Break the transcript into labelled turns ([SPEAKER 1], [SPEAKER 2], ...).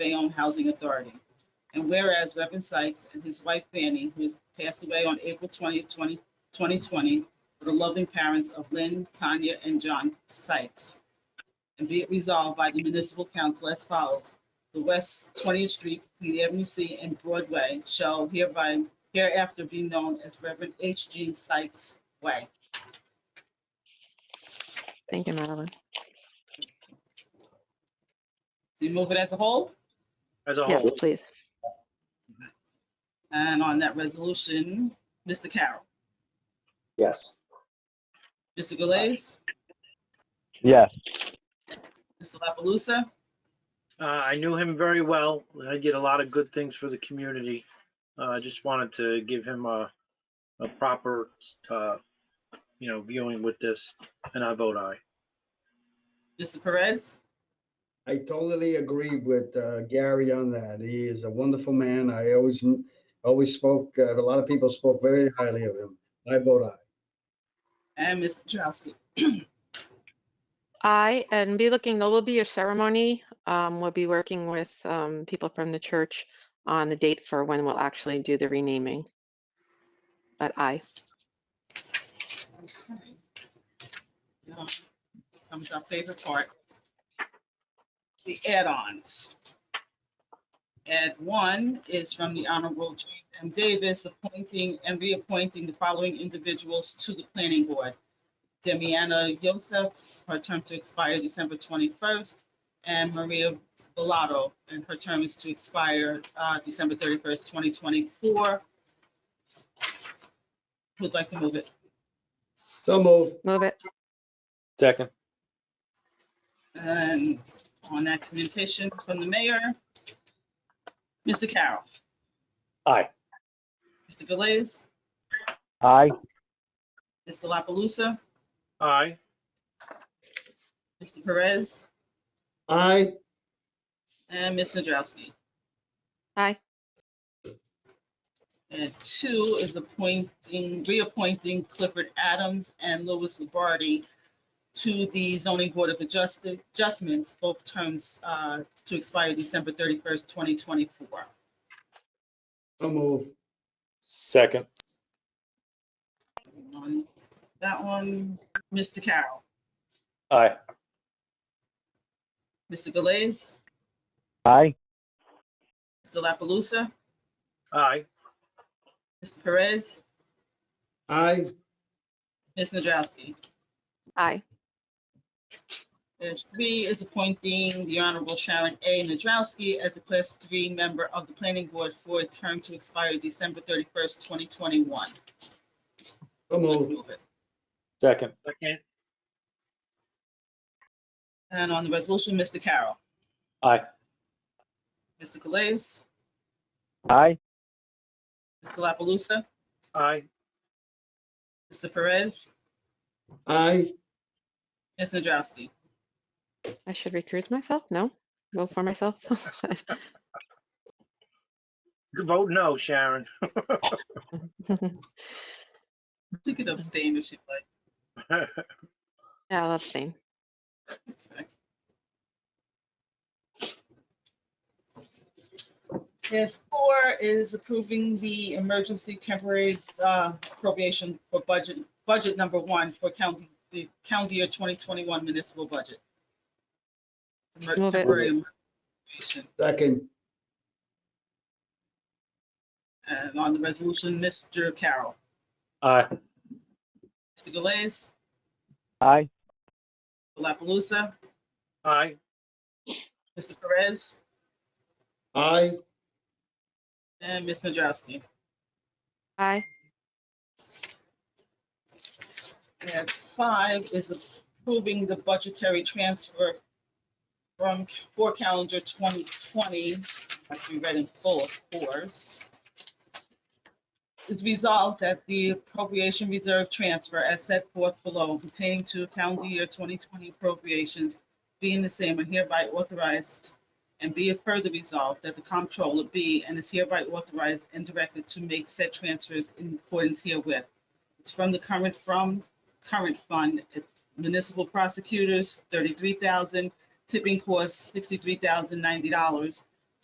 [SPEAKER 1] Bayonne Housing Authority. And whereas Reverend Sykes and his wife Fanny, who passed away on April 20th, 20 2020, were the loving parents of Lynn, Tanya, and John Sykes. And be it resolved by the municipal council as follows. The West 20th Street, Queen Avenue C, and Broadway shall hereby hereafter be known as Reverend H. G. Sykes Way.
[SPEAKER 2] Thank you, Madeline.
[SPEAKER 1] So you move it as a whole?
[SPEAKER 3] As a
[SPEAKER 2] Yes,
[SPEAKER 3] whole,
[SPEAKER 2] please.
[SPEAKER 1] And on that resolution, Mr. Carroll,
[SPEAKER 4] Yes.
[SPEAKER 1] Mr. Galais,
[SPEAKER 5] yes,
[SPEAKER 1] Mr. La Palusa,
[SPEAKER 3] uh, I knew him very well. and I did a lot of good things for the community. Uh, I just wanted to give him a, a proper, uh, you know, viewing with this, and I vote aye.
[SPEAKER 1] Mr. Perez,
[SPEAKER 6] I totally agree with uh, Gary on that. He is a wonderful man. I always, always spoke, uh, a lot of people spoke very highly of him. I vote aye.
[SPEAKER 1] and Ms. Nadrowski.
[SPEAKER 2] I, and be looking, there will be a ceremony. Um, we'll be working with, um, people from the church on the date for when we'll actually do the renaming. But I,
[SPEAKER 1] Now Comes our favorite part. The add-ons. Add one is from the Honorable James M. Davis appointing and reappointing the following individuals to the planning board. Demiana Yosef, her term to expire December 21st, and Maria Bellato, and her term is to expire uh, December 31st, 2024. Who'd like to move it?
[SPEAKER 6] So move.
[SPEAKER 2] move it,
[SPEAKER 4] Second.
[SPEAKER 1] And on that communication from the mayor, Mr. Carroll.
[SPEAKER 4] Aye.
[SPEAKER 1] Mr. Galais,
[SPEAKER 5] I,
[SPEAKER 1] Mr. La Palusa,
[SPEAKER 3] Aye,
[SPEAKER 1] Mr. Perez,
[SPEAKER 6] Aye.
[SPEAKER 1] and Ms. Nadrowski.
[SPEAKER 2] Aye.
[SPEAKER 1] And two is appointing, reappointing Clifford Adams and Louis Lombardi to the zoning board of adjusted, adjustments, both terms uh, to expire December 31st, 2024.
[SPEAKER 6] So move.
[SPEAKER 4] Second.
[SPEAKER 1] On That one, Mr. Carroll.
[SPEAKER 4] Aye.
[SPEAKER 1] Mr. Galais,
[SPEAKER 5] I,
[SPEAKER 1] Mr. La Palusa,
[SPEAKER 3] aye,
[SPEAKER 1] Mr. Perez,
[SPEAKER 6] Aye.
[SPEAKER 1] Ms. Nadrowski.
[SPEAKER 2] I,
[SPEAKER 1] And three is appointing the Honorable Sharon A. Nadrowski as a Class Three member of the Planning Board for a term to expire December thirty-first, twenty twenty-one.
[SPEAKER 6] So move.
[SPEAKER 4] Second.
[SPEAKER 3] second,
[SPEAKER 1] And on the resolution, Mr. Carroll,
[SPEAKER 4] Aye.
[SPEAKER 1] Mr. Galais,
[SPEAKER 5] I,
[SPEAKER 1] Mr. La Palusa,
[SPEAKER 3] aye,
[SPEAKER 1] Mr. Perez,
[SPEAKER 6] Aye.
[SPEAKER 1] Ms. Nadrowski.
[SPEAKER 2] I should recruit myself? No, vote for myself.
[SPEAKER 3] vote no, Sharon.
[SPEAKER 1] She could abstain if she'd like.
[SPEAKER 2] Yeah, I'll abstain.
[SPEAKER 1] And four is approving the emergency temporary uh, appropriation for budget, budget number one for county, the county year 2021 municipal budget. Emer-
[SPEAKER 2] Move it.
[SPEAKER 1] Temporary appropriation.
[SPEAKER 6] Second.
[SPEAKER 1] And on the resolution, Mr. Carroll,
[SPEAKER 4] Aye.
[SPEAKER 1] Mr. Galais,
[SPEAKER 5] I,
[SPEAKER 1] La Palusa,
[SPEAKER 3] Aye,
[SPEAKER 1] Mr. Perez,
[SPEAKER 6] Aye.
[SPEAKER 1] and Ms. Nadrowski.
[SPEAKER 2] I,
[SPEAKER 1] And five is approving the budgetary transfer from, for calendar 2020, as we read in full, of course. It's resolved that the appropriation reserve transfer as set forth below pertaining to calendar year 2020 appropriations being the same are hereby authorized and be it further resolved that the comptroller be and is hereby authorized and directed to make said transfers in accordance herewith. It's from the current, from current fund, it's municipal prosecutors, thirty-three thousand, tipping costs, sixty-three thousand ninety dollars.